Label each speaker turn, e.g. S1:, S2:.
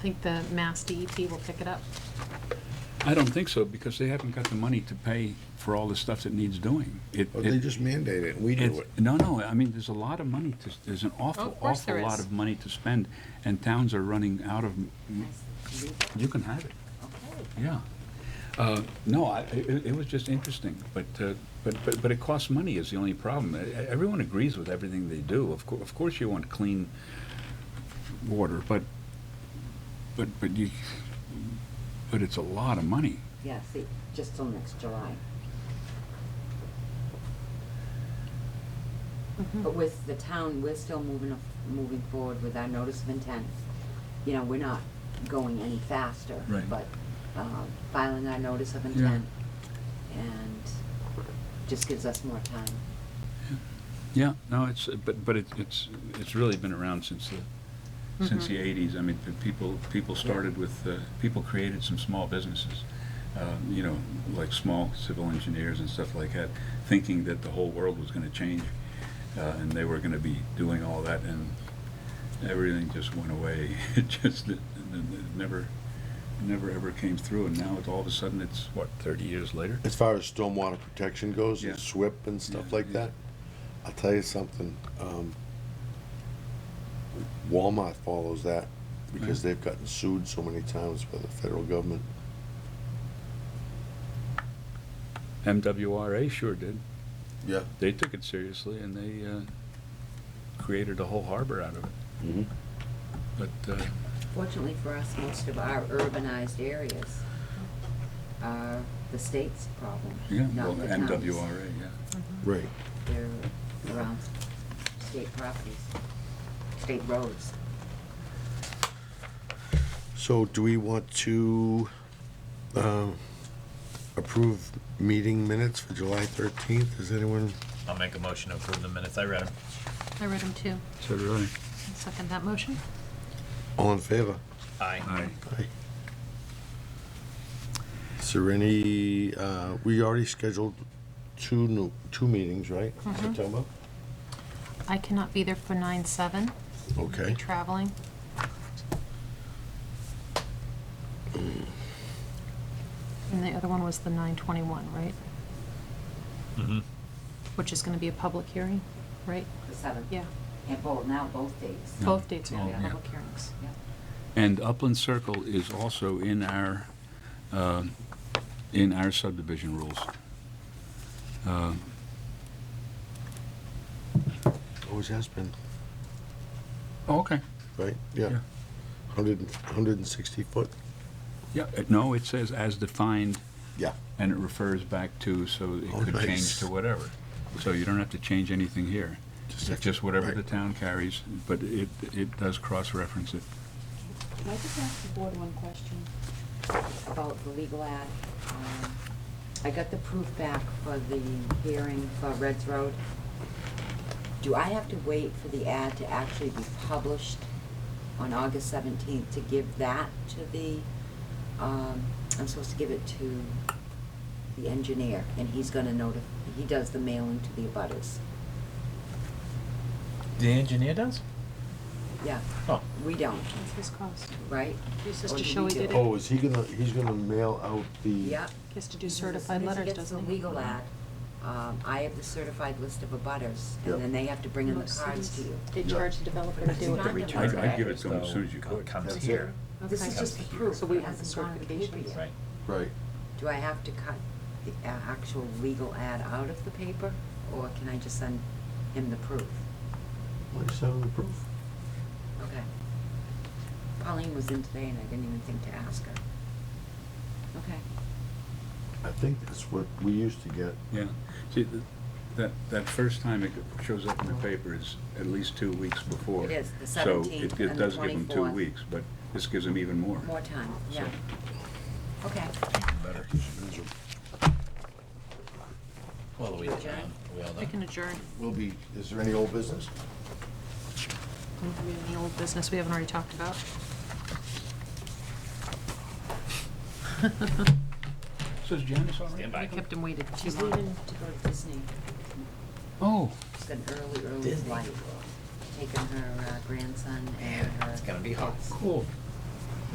S1: I think the Mass DEP will pick it up.
S2: I don't think so, because they haven't got the money to pay for all the stuff that needs doing. It-
S3: Or Oh, they
S2: it-
S3: just mandate it, we do
S2: it's-
S3: it.
S2: No, no, I mean, there's a lot of money to, there's an
S1: Oh,
S2: awful,
S1: of course
S2: awful
S1: there
S2: lot
S1: is.
S2: of money to spend, and towns are running out of, m- you can have it, yeah. Uh, No, I, it, it was just interesting, but, uh, but, but, but it costs money is the only problem. E- Everyone agrees with everything they do. Of cour, of course you want clean water, but, but, but you, but it's a lot of money.
S4: Yeah, see, just till next July. But with the town, we're still moving, af- moving forward with our notice of intent. You know, we're not going any faster.
S2: Right.
S4: But, um, filing our notice of intent and just gives us more time.
S2: Yeah, no, it's, but, but it's, it's, it's really been around since the, since the eighties. I mean, the people, people started with, uh, people created some small businesses, um, you know, like small civil engineers and stuff like that, thinking that the whole world was gonna change, uh, and they were gonna be doing all that, and everything just went away. It just, it it never, never ever came through, and now it's all of a sudden, it's, what, thirty years later?
S3: As far as stormwater protection goes, and
S2: Yeah.
S3: SWIP and stuff
S2: Yeah,
S3: like
S2: yeah.
S3: that, I'll tell you something, um, Walmart follows that, because they've gotten sued so many times by the federal government.
S2: MWRA sure did.
S3: Yeah.
S2: they took it seriously and they uh, created a whole harbor out of it.
S3: Mhm.
S2: But uh,
S4: Fortunately for us, most of our urbanized areas are the state's problem,
S2: yeah, well,
S4: not the town's.
S2: MWRA, yeah.
S3: Right.
S4: They're around state properties, state roads.
S3: So do we want to, um, approve meeting minutes for July thirteenth? Is anyone,
S5: I'll make a motion to approve the minutes. I read them.
S1: I read them too.
S2: So did I.
S1: I'll Second that motion.
S3: all in favor?
S5: Aye.
S3: Aye. Is there any, uh, we already scheduled two new, two meetings, right?
S1: Mm-hmm.
S3: September?
S1: I cannot be there for nine seven,
S3: Okay.
S1: traveling. And the other one was the nine twenty-one, right?
S5: Mm-hmm.
S1: Which is gonna be a public hearing, right?
S4: The seventh.
S1: Yeah,
S4: And both, now both dates.
S2: Yeah.
S1: both dates will be
S2: Yeah.
S1: public hearings.
S4: Yeah.
S2: And Upland Circle is also in our, uh, in our subdivision rules. Uh,
S3: Always has been,
S2: oh, Okay.
S3: right? Yeah.
S2: Yeah.
S3: Hundred, hundred and sixty foot?
S2: Yeah, uh, no, it says as defined
S3: Yeah.
S2: and it refers back to, so it
S3: Oh,
S2: could
S3: nice.
S2: change to whatever. So you don't have to change anything here.
S3: Just
S2: It's
S3: have to-
S2: just whatever
S3: right.
S2: the town carries, but it, it does cross-reference it.
S4: Can I just ask the board one question about the legal ad? Um, I got the proof back for the hearing for Reds Road. Do I have to wait for the ad to actually be published on August seventeenth to give that to the, um, I'm supposed to give it to the engineer, and he's gonna notify, he does the mailing to the abutters.
S5: The engineer does?
S4: Yeah,
S5: Oh.
S4: we don't,
S1: That's his cost.
S4: right?
S1: He just
S4: Or
S1: has to
S4: do
S1: show
S4: we
S1: he
S4: do
S1: did
S4: it?
S1: it.
S3: Oh, is he gonna, he's gonna mail out the?
S4: Yeah.
S1: He has to do certified letters,
S4: As
S1: doesn't
S4: soon as
S1: he?
S4: he gets the legal ad, um, I have the certified list of abutters,
S3: Yep.
S4: and then they have to bring in the
S1: Most
S4: cards to
S1: cities,
S4: you.
S1: They
S3: Yeah.
S1: charge the developer to
S4: It's
S1: do
S4: not the
S1: it.
S4: return
S2: I'd- I'd give it to them as
S5: though
S2: soon as you could.
S5: Comes
S3: That's
S5: here,
S4: This is
S1: Okay.
S4: just the
S5: Comes here.
S4: proof,
S1: So we
S4: it
S1: have the
S4: hasn't gone to paper
S1: certification.
S4: yet.
S5: right?
S3: Right.
S4: Do I have to cut the a- actual legal ad out of the paper, or can I just send him the proof?
S3: Like seven proof?
S4: Okay. Pauline was in today, and I didn't even think to ask her. Okay.
S3: I think that's what we used to get.
S2: Yeah, see, th- that, that first time it shows up in the paper is at least two weeks before.
S4: It is, the
S2: So
S4: 17th
S2: it-
S4: and the
S2: It does give them two
S4: 24th.
S2: weeks, but this gives them even more.
S4: More time, yeah. Okay.
S5: Better. Well, the way
S4: Adjourn?
S5: around, we all
S1: We can
S5: done.
S1: adjourn.
S3: Will be, is there any old business?
S1: Do we have Any old business we haven't already talked about?
S2: So is Janice all
S5: Stand by.
S1: I kept him waited too
S4: She's
S1: long.
S4: leaving to go to Disney.
S2: Oh,
S4: It's an early, early flight, taking her uh, grandson and her.
S5: It's gonna be hot.
S4: kids.
S2: cool.